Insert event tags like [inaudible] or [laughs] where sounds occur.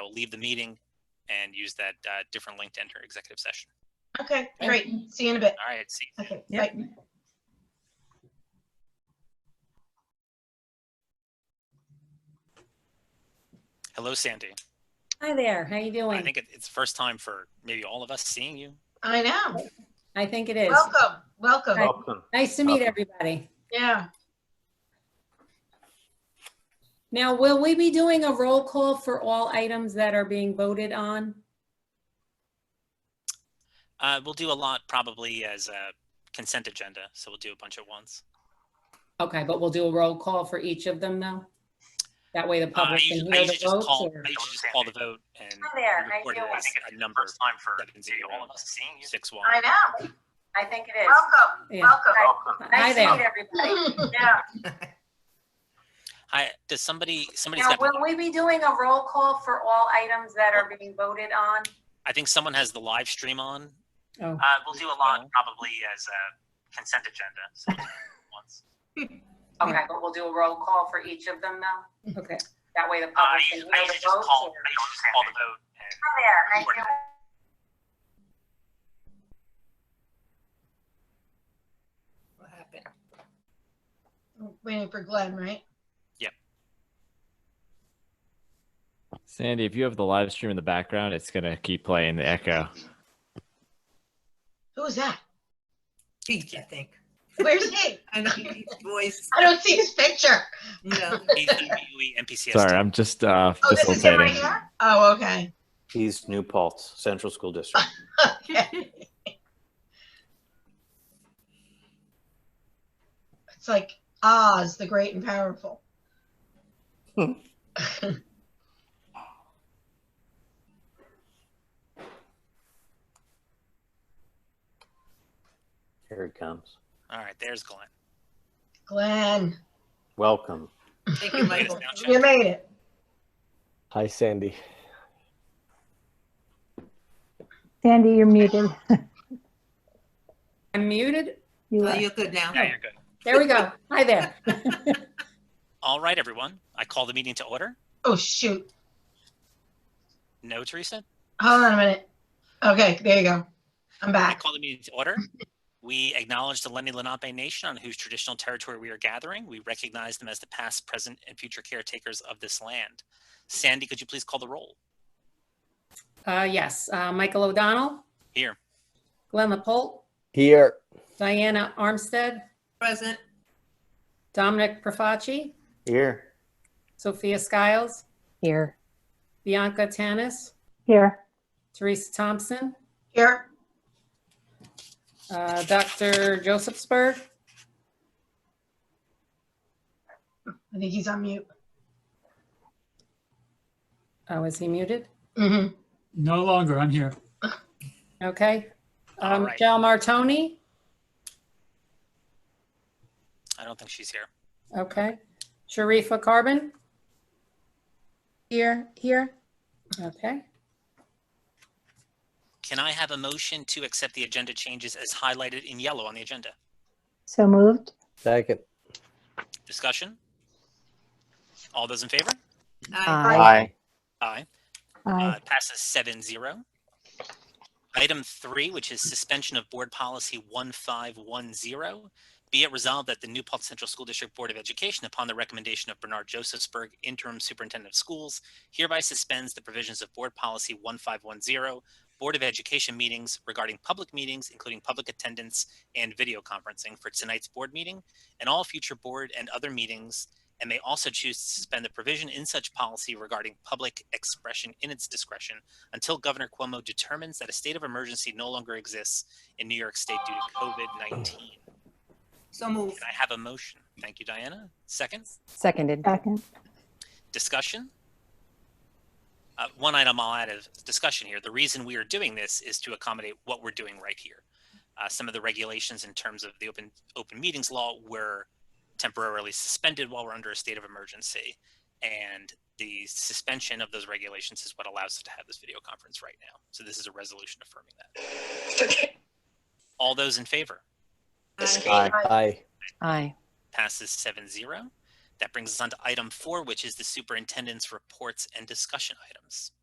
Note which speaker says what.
Speaker 1: will leave the meeting and use that uh, different link to enter executive session.
Speaker 2: Okay, great. See you in a bit.
Speaker 1: All right, see.
Speaker 2: Okay,
Speaker 3: Yep.
Speaker 2: bye.
Speaker 1: Hello, Sandy.
Speaker 3: Hi there, how you
Speaker 1: I
Speaker 3: doing?
Speaker 1: think it- it's the first time for maybe all of us seeing you.
Speaker 2: I know.
Speaker 3: I think it is.
Speaker 2: Welcome, welcome.
Speaker 4: Welcome.
Speaker 3: Nice to meet
Speaker 4: Welcome.
Speaker 3: everybody.
Speaker 2: Yeah.
Speaker 3: Now, will we be doing a roll call for all items that are being voted on?
Speaker 1: Uh, we'll do a lot probably as a consent agenda, so we'll do a bunch at once.
Speaker 3: Okay, but we'll do a roll call for each of them though? That way the
Speaker 1: Uh, I
Speaker 3: public can
Speaker 1: usually, I
Speaker 3: hear
Speaker 1: usually
Speaker 3: the
Speaker 1: just
Speaker 3: votes
Speaker 1: call.
Speaker 3: or-
Speaker 1: I usually just call the vote and
Speaker 3: Hi there, how you
Speaker 1: record it
Speaker 3: doing?
Speaker 1: as a number.
Speaker 4: time for
Speaker 1: Seven zero,
Speaker 4: all of us seeing you.
Speaker 1: six one.
Speaker 2: I know.
Speaker 3: I think it
Speaker 2: Welcome,
Speaker 3: Yeah.
Speaker 2: welcome.
Speaker 4: Welcome.
Speaker 3: Hi
Speaker 2: Nice to
Speaker 3: there.
Speaker 2: meet Yeah.
Speaker 1: Hi, does somebody? Somebody's
Speaker 3: Now,
Speaker 1: got.
Speaker 3: will we be doing a roll call for all items that are being voted on?
Speaker 1: I think someone has the live stream on.
Speaker 3: Oh.
Speaker 1: Uh, we'll do a lot probably as a consent agenda, [laughs] so we'll do it at once.
Speaker 3: Okay, but we'll do a roll call for each of them though? Okay, that way the
Speaker 1: Uh, I
Speaker 3: public can
Speaker 1: usually,
Speaker 3: hear
Speaker 1: I usually
Speaker 3: the
Speaker 1: just
Speaker 3: votes
Speaker 1: call.
Speaker 3: or-
Speaker 1: I usually just call the vote and
Speaker 3: Hi
Speaker 1: record it.
Speaker 2: [laughs] Waiting for Glenn, right?
Speaker 5: Sandy, if you have the live stream in the background, it's gonna keep playing the echo.
Speaker 2: Who's that?
Speaker 6: Pete, I think.
Speaker 2: Where's
Speaker 6: [laughs]
Speaker 2: he?
Speaker 6: And his voice,
Speaker 2: I don't see his picture.
Speaker 6: no.
Speaker 1: AEUE NPCS.
Speaker 5: Sorry, I'm just uh,
Speaker 2: Oh, this is him right
Speaker 5: facilitating.
Speaker 2: here? Oh, okay.
Speaker 4: East New Paltz, Central School
Speaker 2: [laughs]
Speaker 4: District.
Speaker 2: Okay. It's like Oz, the great and powerful.
Speaker 4: Here it comes.
Speaker 1: All right, there's Glenn.
Speaker 2: Glenn,
Speaker 4: Welcome.
Speaker 6: Thank you, Michael.
Speaker 2: you made it.
Speaker 4: Hi, Sandy.
Speaker 7: Sandy, you're muted.
Speaker 3: I'm muted?
Speaker 7: You
Speaker 6: Oh,
Speaker 7: are.
Speaker 6: You're good now.
Speaker 1: Yeah, you're good.
Speaker 3: There we go. Hi there.
Speaker 1: All right, everyone. I call the meeting to order.
Speaker 2: Oh, shoot.
Speaker 1: No, Teresa.
Speaker 2: Hold on a minute. Okay, there you go. I'm
Speaker 1: I
Speaker 2: back.
Speaker 1: call the meeting to order. We acknowledge the Lenni Lenape Nation on whose traditional territory we are gathering. We recognize them as the past, present, and future caretakers of this land. Sandy, could you please call the roll?
Speaker 3: Uh, yes, uh, Michael O'Donnell,
Speaker 1: Here.
Speaker 3: Glenn Lapolt,
Speaker 4: Here.
Speaker 3: Diana Armstead,
Speaker 6: Present,
Speaker 3: Dominic Profaci,
Speaker 4: Here.
Speaker 3: Sophia Skiles,
Speaker 7: Here.
Speaker 3: Bianca Tanis,
Speaker 7: Here.
Speaker 3: Teresa Thompson,
Speaker 2: Here,
Speaker 3: uh, Dr. Joseph Spur,
Speaker 2: I think he's on mute.
Speaker 3: oh, is he muted?
Speaker 2: hmm
Speaker 8: No longer, I'm here.
Speaker 3: Okay.
Speaker 1: All
Speaker 3: Um,
Speaker 1: right.
Speaker 3: Michelle Martoni,
Speaker 1: I don't think she's here.
Speaker 3: okay. Sharifa Carbon,
Speaker 7: Here, here.
Speaker 3: okay.
Speaker 1: Can I have a motion to accept the agenda changes as highlighted in yellow on the agenda?
Speaker 7: So moved.
Speaker 4: Second.
Speaker 1: Discussion? All those in favor?
Speaker 6: Aye.
Speaker 1: Aye.
Speaker 7: Aye.
Speaker 1: Uh, passes seven zero. Item three, which is suspension of board policy one five one zero. Be it resolved that the New Paltz Central School District Board of Education, upon the recommendation of Bernard Josephsberg, interim superintendent of schools, hereby suspends the provisions of board policy one five one zero, Board of Education meetings regarding public meetings, including public attendance and video conferencing for tonight's board meeting and all future board and other meetings and may also choose to suspend the provision in such policy regarding public expression in its discretion until Governor Cuomo determines that a state of emergency no longer exists in New York State due to COVID 19. Can
Speaker 6: So move.
Speaker 1: I have a motion? Thank you, Diana. Second,
Speaker 9: Seconded.
Speaker 7: Second.
Speaker 1: discussion. Uh, one item I'll add of discussion here. The reason we are doing this is to accommodate what we're doing right here. Uh, some of the regulations in terms of the open open meetings law were temporarily suspended while we're under a state of emergency, and the suspension of those regulations is what allows us to have this video conference right now. So this is a resolution affirming that. All those in favor
Speaker 6: Aye.
Speaker 4: Aye. Aye.
Speaker 9: Aye.
Speaker 1: passes seven zero. That brings us on to item four, which is the superintendent's reports and discussion items.